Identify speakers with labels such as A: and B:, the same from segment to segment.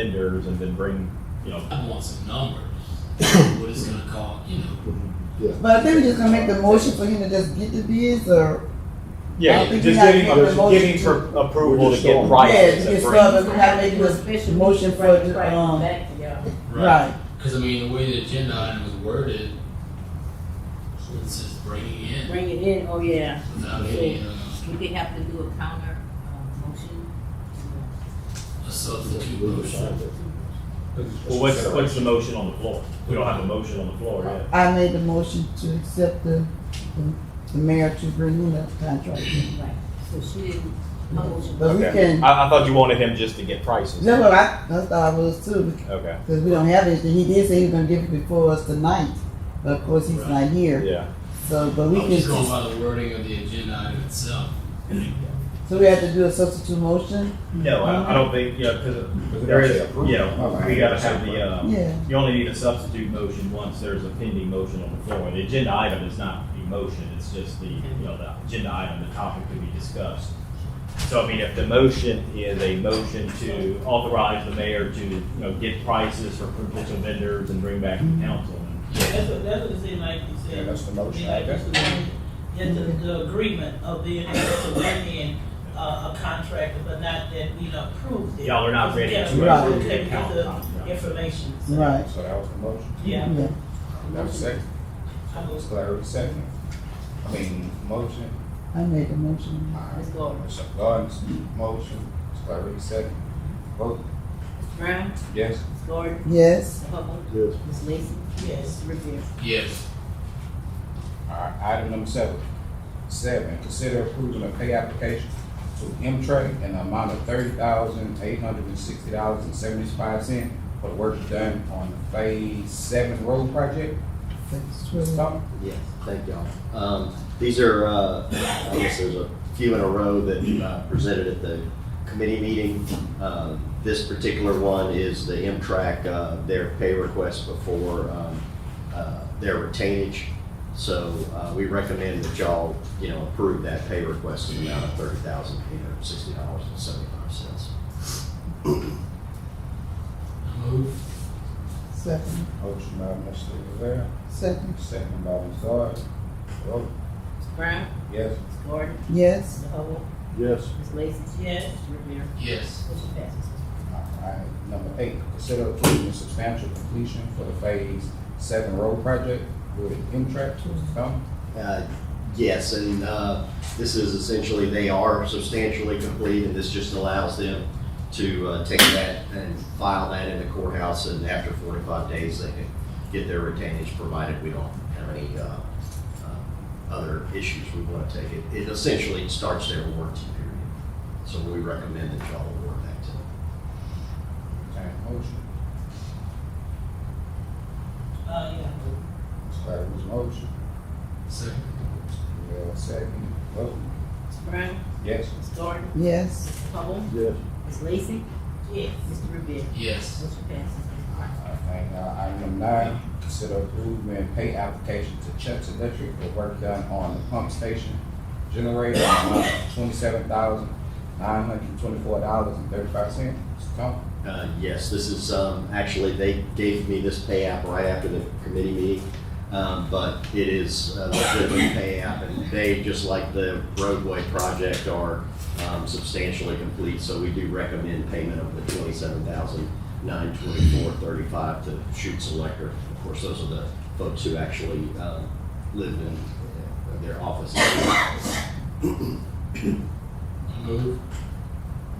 A: vendors and then bring, you know.
B: I want some numbers. what it's gonna cost, you know.
C: But I think we're just gonna make the motion for him to just get the bids or,
A: Yeah,
C: I think
A: just
C: we gotta
A: giving,
C: make the
A: just giving
C: motion
A: for approval
D: We're
A: to
D: just
A: get
D: going.
C: yeah,
A: prices
C: to get
A: and
C: started,
A: bring.
C: we gotta make this
E: Official
C: motion for,
E: meeting,
C: the,
E: right,
C: um,
E: Back to y'all.
C: right,
B: Because I mean, the way the agenda item was worded, it's just bringing in
E: Bring it in, oh yeah.
B: without any uh,
F: We did have to do a counter uh, motion.
B: a substitute motion.
A: Well, what's, what's the motion on the floor? We don't have a motion on the floor yet.
C: I made the motion to accept the, the- the mayor to renew that contract.
F: Right. So she didn't, her motion.
C: But Uh, we can,
A: I, I thought you wanted him just to get prices.
C: that's what I, that's what I was too,
A: Okay,
C: because we don't have anything, he did say he was gonna give it before us tonight, but of course he's not here,
A: yeah.
C: so, but
B: I'm
C: we can,
B: just going by the wording of the agenda item itself.
C: so we have to do a substitute motion?
A: No, I, I don't think, you know, cause there is, you know, we gotta have the, uh,
C: Yeah,
A: you only need a substitute motion once there's a pending motion on the floor. The agenda item is not the motion, it's just the, you know, the agenda item, the topic to be discussed. So I mean, if the motion is a motion to authorize the mayor to, you know, get prices for potential vendors and bring back to council.
G: That's what, that's what it seemed like you said.
D: Yeah, that's the
G: It
D: motion.
G: seemed like that's the, that's the, the agreement of being able to bring in a, a contractor, but not that we don't approve it.
A: Y'all are not ready to.
G: Yeah,
C: Right.
G: we're
A: approve the
G: taking the
A: council.
G: information. so,
C: right,
D: So that was the motion.
G: Yeah.
C: yeah,
D: That was second.
G: I
D: That's
G: was-
D: Larry second. I mean, motion.
C: I made the motion.
D: Alright.
F: Ms. Gordon.
D: Mr. Gordon's motion. It's Larry second. Vote,
F: Brown,
D: yes.
F: Ms. Gordon,
C: Yes,
F: Ms. Hubble,
D: Yes.
F: Ms. Lacy, Ms.
G: Yes,
F: Revere.
B: Yes.
D: Alright, item number seven. Seven, consider approving a pay application to M-Trade in the amount of thirty thousand, eight hundred and sixty dollars and seventy-five cents for the work done on the Phase Seven Road Project.
C: that's
D: Mr.
C: true.
D: Thomas?
H: Yes, thank y'all. Um, these are, uh, I guess there's a few in a row that, uh, presented at the committee meeting. Uh, this particular one is the M-Track, uh, their pay request before, um, uh, their retainage. So, uh, we recommend that y'all, you know, approve that pay request in the amount of thirty thousand, eight hundred and sixty dollars and seventy-five cents.
B: I move.
C: Second,
D: Motion by Mr. Rivera,
C: second,
D: second by Ms. Gordon. Vote,
F: Ms. Brown,
D: yes.
F: Ms. Gordon,
C: yes.
F: Ms. Hubble,
D: Yes.
F: Ms. Lacy,
G: yes,
F: Ms. Revere.
B: Yes.
F: Motion passes.
D: Alright, number eight, consider approving substantial completion for the phase seven road project with M-Track. Mr. Thomas?
H: Uh, Yes, and uh, this is essentially, they are substantially complete, and this just allows them to uh, take that and file that in the courthouse, and after 45 days, they can get their retainage, provided we don't have any uh, uh, other issues we want to take. It- It essentially starts their warranty period, so we recommend that y'all award that to them.
D: Entertain a motion.
G: uh, yeah.
D: Ms. Clavin's motion.
B: Second.
D: Rivera second. Vote,
F: Ms. Brown,
D: yes.
F: Ms. Gordon,
C: Yes,
F: Ms. Hubble,
D: Yes.
F: Ms. Lacy,
G: Yes,
F: Ms. Revere.
B: Yes.
F: Motion passes.
D: Alright, now, item number nine, consider approving pay application to Chuck's Electric for work done on the pump station generator in the amount of twenty-seven thousand, nine hundred twenty-four dollars and thirty-five cents. Mr. Thomas?
H: Uh, Yes, this is, um, actually, they gave me this pay app right after the committee meeting, um, but it is uh, a different pay app, and they, just like the roadway project, are um, substantially complete, so we do recommend payment of the twenty-seven thousand nine twenty-four thirty-five to Shoots Electric. Of course, those are the folks who actually um, live in uh, their offices.
B: I move.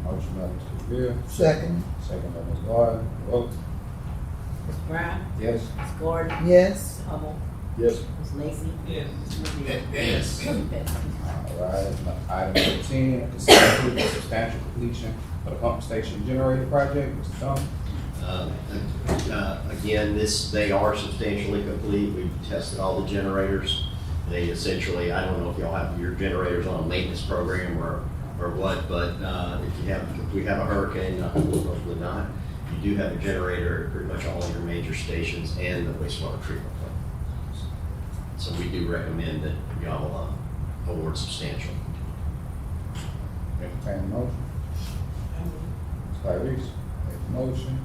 D: Motion by Mr. Revere,
C: second,
D: second by Ms. Gordon. Vote,
F: Ms. Brown,
D: yes.
F: Ms. Gordon,
C: yes.
F: Ms. Hubble,
D: Yes.
F: Ms. Lacy,
G: yes.
F: Ms. Revere.
B: Yes.
F: Motion passes.
D: Alright, item number ten, consider approving substantial completion for the pump station generator project, Mr. Thomas.
H: Uh, uh, Again, this, they are substantially complete. We've tested all the generators. They essentially, I don't know if y'all have your generators on a maintenance program or, or what, but uh, if you have, if we have a hurricane, not- hopefully not, you do have a generator at pretty much all your major stations and the wastewater treatment plant. So we do recommend that y'all uh, award substantial.
D: Entertain a motion.
G: I will.
D: Ms. Tyrese, make the motion.